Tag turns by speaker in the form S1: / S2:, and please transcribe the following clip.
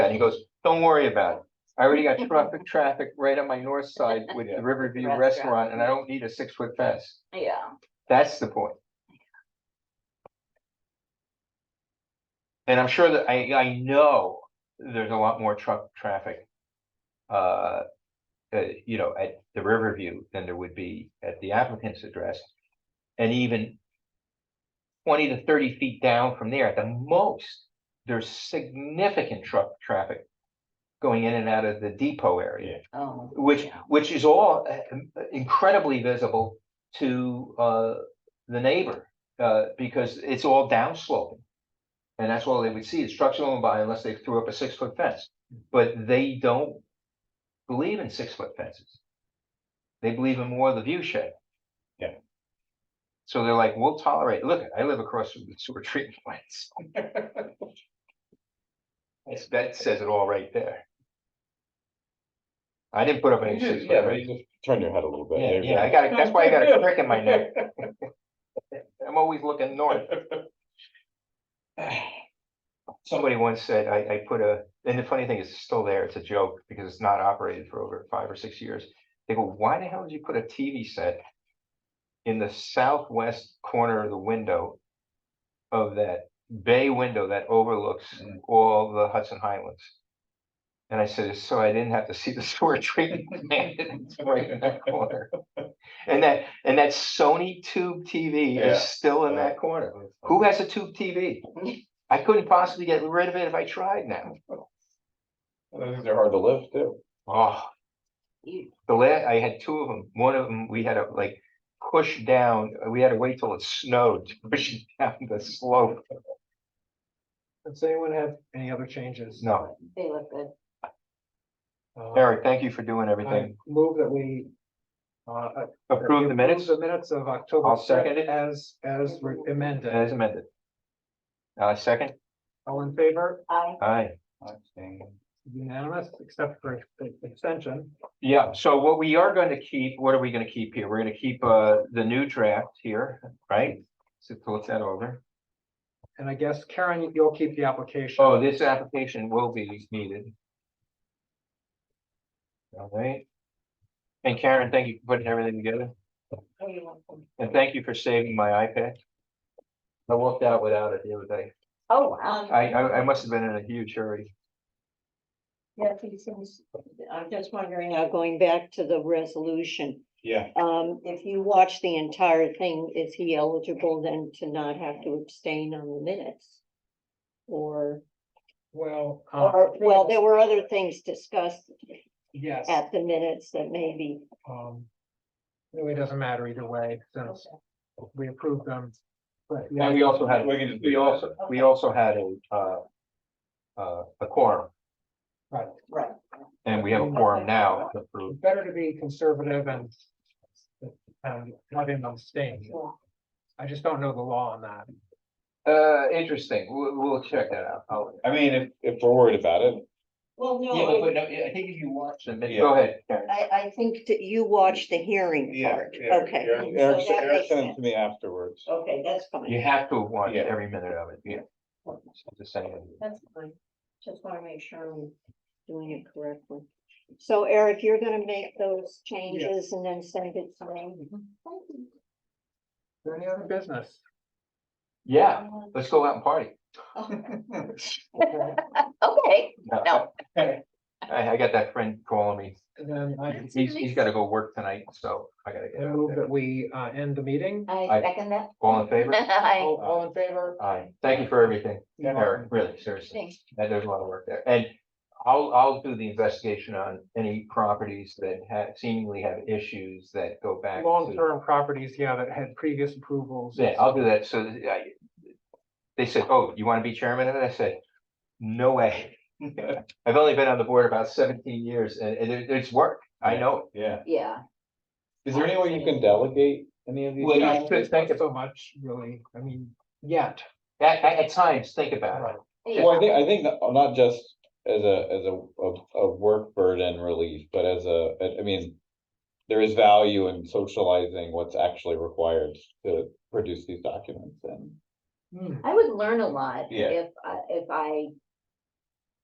S1: And he goes, don't worry about it. I already got traffic, traffic right on my north side with the Riverview
S2: Restaurant.
S1: Restaurant and I don't need a six foot fence.
S2: Yeah,
S1: That's the point. And I'm sure that I, I know there's a lot more truck traffic. Uh, uh, you know, at the Riverview than there would be at the applicant's address. And even. Twenty to thirty feet down from there, at the most, there's significant truck traffic. Going in and out of the depot area
S2: oh.
S1: which,
S2: yeah.
S1: which is all uh, incredibly visible to uh, the neighbor, uh, because it's all downsloping. And that's all they would see is trucks going by unless they threw up a six foot fence, but they don't believe in six foot fences. They believe in more of the view shed.
S3: Yeah.
S1: So they're like, we'll tolerate, look, I live across from the sewer treatment plants. That's- That says it all right there. I didn't put up any six foot
S3: Yeah, but
S1: fence.
S3: you just turn your head a little bit.
S1: Yeah,
S3: there you
S1: yeah, I
S3: go.
S1: got, a- that's why I got a crick in my neck. I'm always looking north. Somebody once said, I, I put a, and the funny thing is, it's still there, it's a joke, because it's not operated for over five or six years. They go, why the hell did you put a TV set in the southwest corner of the window of that bay window that overlooks
S3: Mm.
S1: all the Hudson Highlands? And I said, so I didn't have to see the sewer treatment plant that's right in that corner. And that, and that Sony tube TV
S3: Yeah,
S1: is still in
S3: yeah.
S1: that corner. Who has a tube TV? I couldn't possibly get rid of it if I tried now.
S3: I think They're hard to live too.
S1: Oh,
S2: You-
S1: the last, I had two of them. One of them, we had to like push down, we had to wait till it snowed to push it down the slope.
S4: Does anyone have any other changes?
S1: No,
S2: They look good.
S4: Uh,
S1: Eric, thank you for doing
S4: I
S1: everything.
S4: move that we. uh,
S1: Approve the minutes
S4: The minutes of October.
S1: I'll second it.
S4: 5th As, as re- amended.
S1: as amended. Uh, second,
S4: All in favor,
S2: I,
S1: aye.
S4: unanimous, except for the extension.
S1: Yeah, so what we are going to keep, what are we going to keep here? We're going to keep uh the new draft here, right? So to look that over.
S4: And I guess Karen, you'll keep the application.
S1: Oh, this application will be needed. All right. And Karen, thank you for putting everything together.
S2: oh, you're welcome.
S1: And thank you for saving my iPad. I walked out without it the other day.
S2: Oh, wow.
S1: I, I, I must have been in a huge hurry.
S2: Yeah, these things- I'm just wondering, now going back to the resolution,
S3: Yeah.
S2: um, if you watch the entire thing, is he eligible then to not have to abstain on the minutes? Or,
S4: Well. uh,
S2: or, well, there were other things discussed
S4: Yes,
S2: at the minutes that maybe.
S4: um. Really doesn't matter either way, since we approved them. But yeah,
S1: And we also had,
S3: We can just
S1: we
S3: leave that.
S1: also, we also had a, uh, uh, a quorum
S4: right,
S2: Right.
S1: and we have a quorum now to approve.
S4: better to be conservative and. And not in on staying. I just don't know the law on that.
S1: Uh, interesting. We'll, we'll check that out. I'll-
S3: I mean, if, if we're worried about it,
S2: Well,
S1: Yeah, but,
S2: no,
S1: but no, I think if you watch the
S3: Yeah.
S1: video, go ahead. Karen.
S2: I, I think that you watched the hearing
S3: yeah.
S2: part,
S3: Eric-
S2: okay.
S3: Eric-
S2: so
S3: Eric
S2: that
S3: Eric
S2: makes
S3: sent it
S2: sense.
S3: to me afterwards.
S2: Okay, that's fine.
S1: You have to watch
S3: Yeah.
S1: every minute of it, yeah. Just saying.
S2: That's fine. Just wanna make sure I'm doing it correctly. So Eric, you're gonna make those changes and then send it to me?
S4: Is there Any other business?
S1: Yeah, let's go out and party.
S4: Okay,
S2: Okay,
S1: No,
S2: No.
S1: I, I got that friend calling me.
S4: And then I
S2: That's
S1: He's, he's
S2: nice.
S1: gotta go work tonight, so I gotta get
S4: I
S1: out
S4: move
S1: there.
S4: that we uh end the meeting.
S1: I-
S2: I second that.
S1: All in favor?
S2: I
S4: All, all in favor?
S1: Aye. Thank you for everything,
S4: You're
S1: Eric,
S4: welcome.
S1: really, seriously.
S2: think.
S1: That there's a lot of work there. And I'll, I'll do the investigation on any properties that have seemingly have issues that go back. to-
S4: Long-term properties, yeah, that had previous approvals.
S1: Yeah, I'll do that, so that I, they said, oh, you wanna be chairman, and I said, no way. I've only been on the board about seventeen years, and, and it, it's work, I know.
S3: Yeah.
S2: Yeah.
S3: Is there any way you can delegate any of these?
S1: Well, you
S3: guys?
S4: Yeah,
S1: should
S4: it's
S1: think
S4: not so much, really, I mean, yet.
S1: it. At, at, at times, think about
S4: Right.
S1: it,
S3: Well, I think, I think that- not just as a, as a, a, a work burden relief, but as a, I- I mean. There is value in socializing what's actually required to produce these documents and.
S4: Hmm.
S2: I would learn a lot
S3: Yeah.
S2: if, I- if I